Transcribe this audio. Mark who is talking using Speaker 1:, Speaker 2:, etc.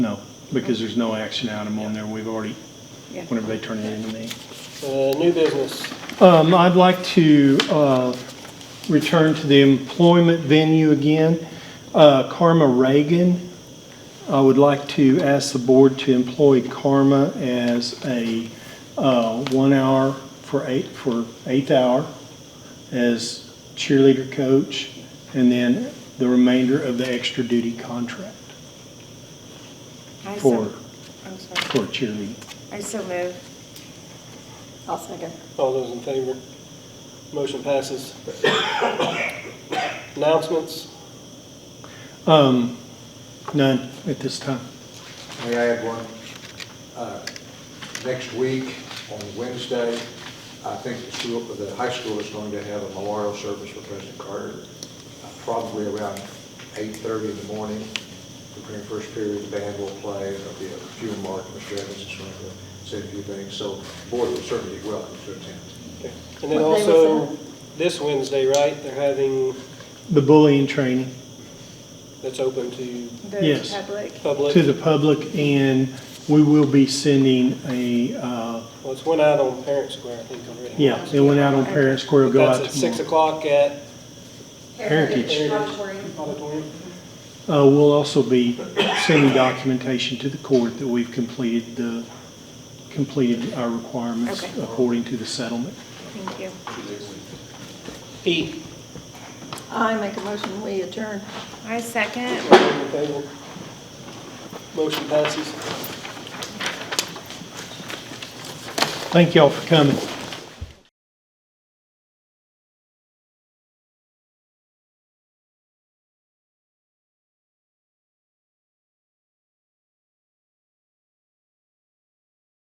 Speaker 1: No, because there's no action item on there. We've already, whenever they turn it in to me.
Speaker 2: Uh, New business,
Speaker 1: Um, I'd like to, uh, return to the employment venue again. Uh, Karma Reagan, I would like to ask the board to employ Karma as a, uh, one hour for eight, for eighth hour as cheerleader coach, and then the remainder of the extra duty contract
Speaker 3: I so-
Speaker 1: for,
Speaker 3: I'm sorry.
Speaker 1: for cheerleading.
Speaker 3: I so move. I'll second.
Speaker 2: all those in favor? Motion passes. Announcements,
Speaker 1: Um, none at this time.
Speaker 4: May I add one? Uh, Next week, on Wednesday, I think the school, the high school is going to have a memorial service for President Carter, uh, probably around 8:30 in the morning, during first period, the band will play, there'll be a few remarks, Mr. Evans is going to say a few things, so the board will certainly be welcome to attend.
Speaker 2: Okay. and then
Speaker 3: What day was
Speaker 2: also, this Wednesday, right, they're having,
Speaker 1: The bullying training
Speaker 2: that's open to
Speaker 3: The
Speaker 1: Yes.
Speaker 3: public.
Speaker 2: public.
Speaker 1: to the public, and we will be sending a, uh,
Speaker 2: Well, it's went out on Parent Square, I think, already.
Speaker 1: yeah, it went out on Parent Square,
Speaker 2: But
Speaker 1: go out
Speaker 2: That's at six
Speaker 1: tomorrow.
Speaker 2: o'clock at
Speaker 1: Heritage.
Speaker 2: Heritage Auditorium.
Speaker 1: Uh, We'll also be sending documentation to the court that we've completed the, completed our requirements
Speaker 3: Okay.
Speaker 1: according to the settlement.
Speaker 3: Thank you.
Speaker 2: E,
Speaker 5: I make a motion, we adjourn.
Speaker 3: I second.
Speaker 2: all those in favor? Motion passes.
Speaker 1: Thank y'all for coming.